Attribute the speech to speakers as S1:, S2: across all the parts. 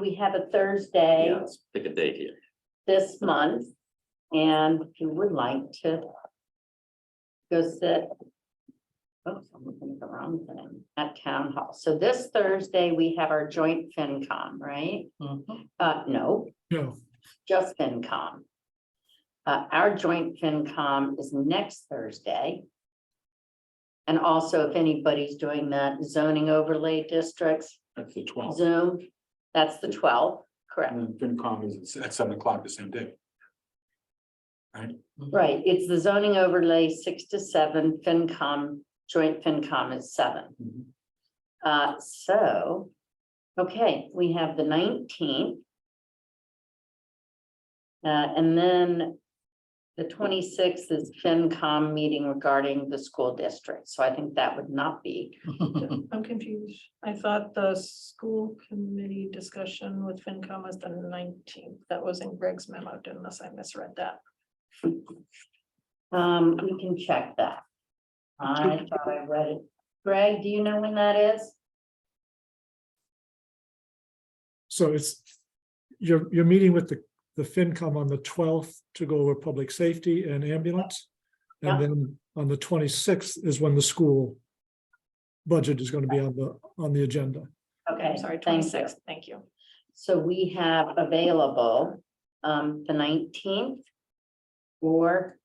S1: We have a Thursday
S2: Yeah, let's pick a date here.
S1: this month, and if you would like to go sit. Oops, I'm looking at the wrong thing, at town hall. So this Thursday, we have our joint FinCom, right? Uh, no,
S3: No,
S1: just FinCom. Uh, our joint FinCom is next Thursday. And also, if anybody's doing that zoning overlay districts
S3: that's the twelfth.
S1: Zoom, that's the twelfth, correct?
S3: And then FinCom is at seven o'clock the same day.
S1: Right, it's the zoning overlay six to seven, FinCom, joint FinCom is seven.
S3: Mhm.
S1: Uh, so, okay, we have the nineteenth. Uh, and then the twenty-sixth is FinCom meeting regarding the school district, so I think that would not be.
S4: I'm confused. I thought the school committee discussion with FinCom was the nineteenth. That was in Greg's memo, unless I misread that.
S1: Um, we can check that. I thought I read it. Greg, do you know when that is?
S5: So it's, you're, you're meeting with the, the FinCom on the twelfth to go over public safety and ambulance.
S1: Yeah.
S5: And then on the twenty-sixth is when the school budget is gonna be on the, on the agenda.
S1: Okay,
S4: I'm sorry,
S1: thank you.
S4: twenty-sixth. Thank you.
S1: So we have available um the nineteenth. Or,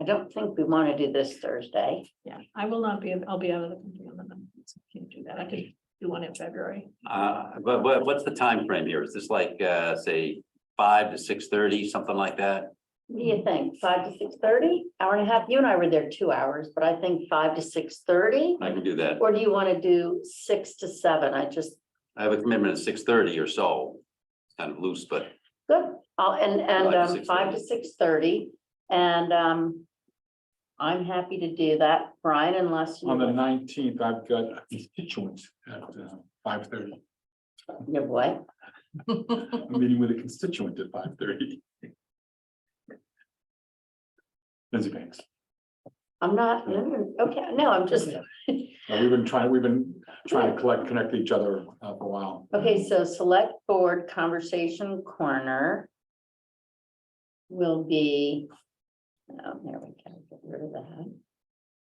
S1: I don't think we want to do this Thursday.
S4: Yeah, I will not be, I'll be out of the country on the nineteenth. so I Can't do that. I could do one in February.
S2: Uh, but what, what's the time frame here? Is this like, uh, say, five to six thirty, something like that?
S1: What do you think? Five to six thirty? Hour and a half? You and I were there two hours, but I think five to six thirty.
S2: I can do that.
S1: Or do you want to do six to seven? I just,
S2: I have a commitment at six thirty or so. It's Kind of loose, but
S1: good, I'll, and and
S2: Five to
S1: um five to six thirty and um. I'm happy to do that, Brian, unless you.
S3: On the nineteenth, I've got a constituent at uh, five thirty.
S1: Your what?
S3: I'm meeting with a constituent at five thirty. Lindsay Banks.
S1: I'm not, no, no, okay, no, I'm just.
S3: Uh, We've been trying, we've been trying to collect, connect each other uh, for a while.
S1: Okay, so select board conversation corner. Will be. Oh, there we go, get rid of that,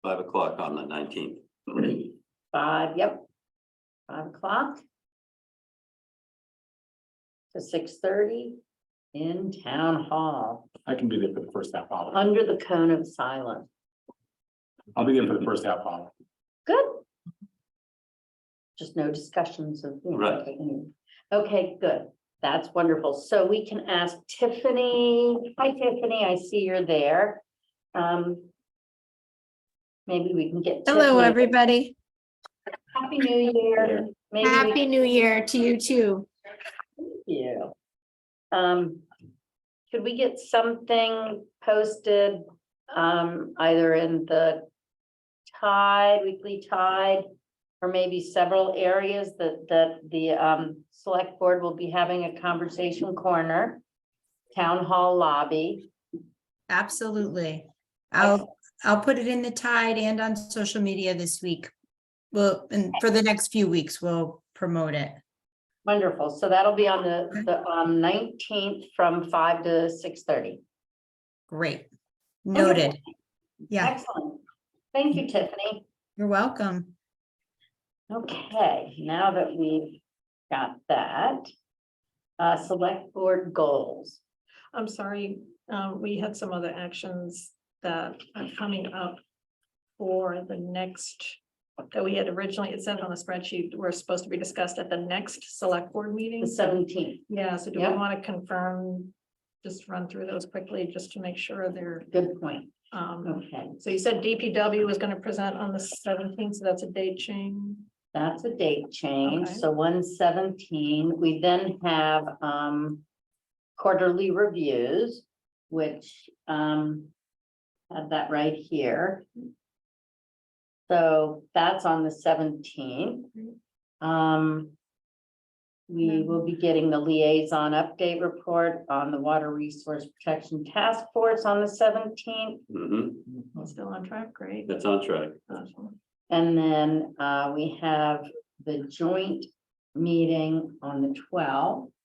S2: five o'clock on the nineteenth.
S1: five, yep. Five o'clock. To six thirty in town hall,
S3: I can be there for the first half hour.
S1: under the cone of silence,
S3: I'll be there for the first half hour.
S1: good. Just no discussions of. you know,
S2: Right.
S1: taking- Okay, good, that's wonderful, so we can ask Tiffany, hi Tiffany, I see you're there. Um. Maybe we can get.
S6: Hello,
S1: Tiffany-
S6: everybody.
S1: Happy New Year. Maybe we
S6: Happy New Year to you too.
S1: you. Um, could we get something posted, um, either in the Tide, Weekly Tide, or maybe several areas that, that the, um, select board will be having a conversation corner, town hall lobby.
S6: Absolutely. I'll, I'll put it in the tide and on social media this week. Well, and for the next few weeks, we'll promote it.
S1: Wonderful. So that'll be on the,
S6: Okay.
S1: the, um, nineteenth from five to six thirty.
S6: Great. Noted. Yeah,
S1: Excellent. Thank you, Tiffany.
S6: you're welcome.
S1: Okay, now that we've got that. Uh, select board goals.
S4: I'm sorry, um, we had some other actions that are coming up for the next, that we had originally, it said on the spreadsheet, were supposed to be discussed at the next select board meeting.
S1: The seventeenth,
S4: Yeah, so do we
S1: Yeah.
S4: want to confirm, just run through those quickly, just to make sure they're,
S1: good point,
S4: um,
S1: okay,
S4: so you said DPW was gonna present on the seventeenth, so that's a date change.
S1: that's a date change,
S4: Okay.
S1: so one seventeen, we then have, um. Quarterly reviews, which, um. Have that right here. So that's on the seventeenth. Um. We will be getting the liaison update report on the Water Resource Protection Task Force on the seventeenth.
S2: hmm
S4: Still on track, great.
S2: that's on track.
S4: Awesome.
S1: And then uh, we have the joint meeting on the twelfth.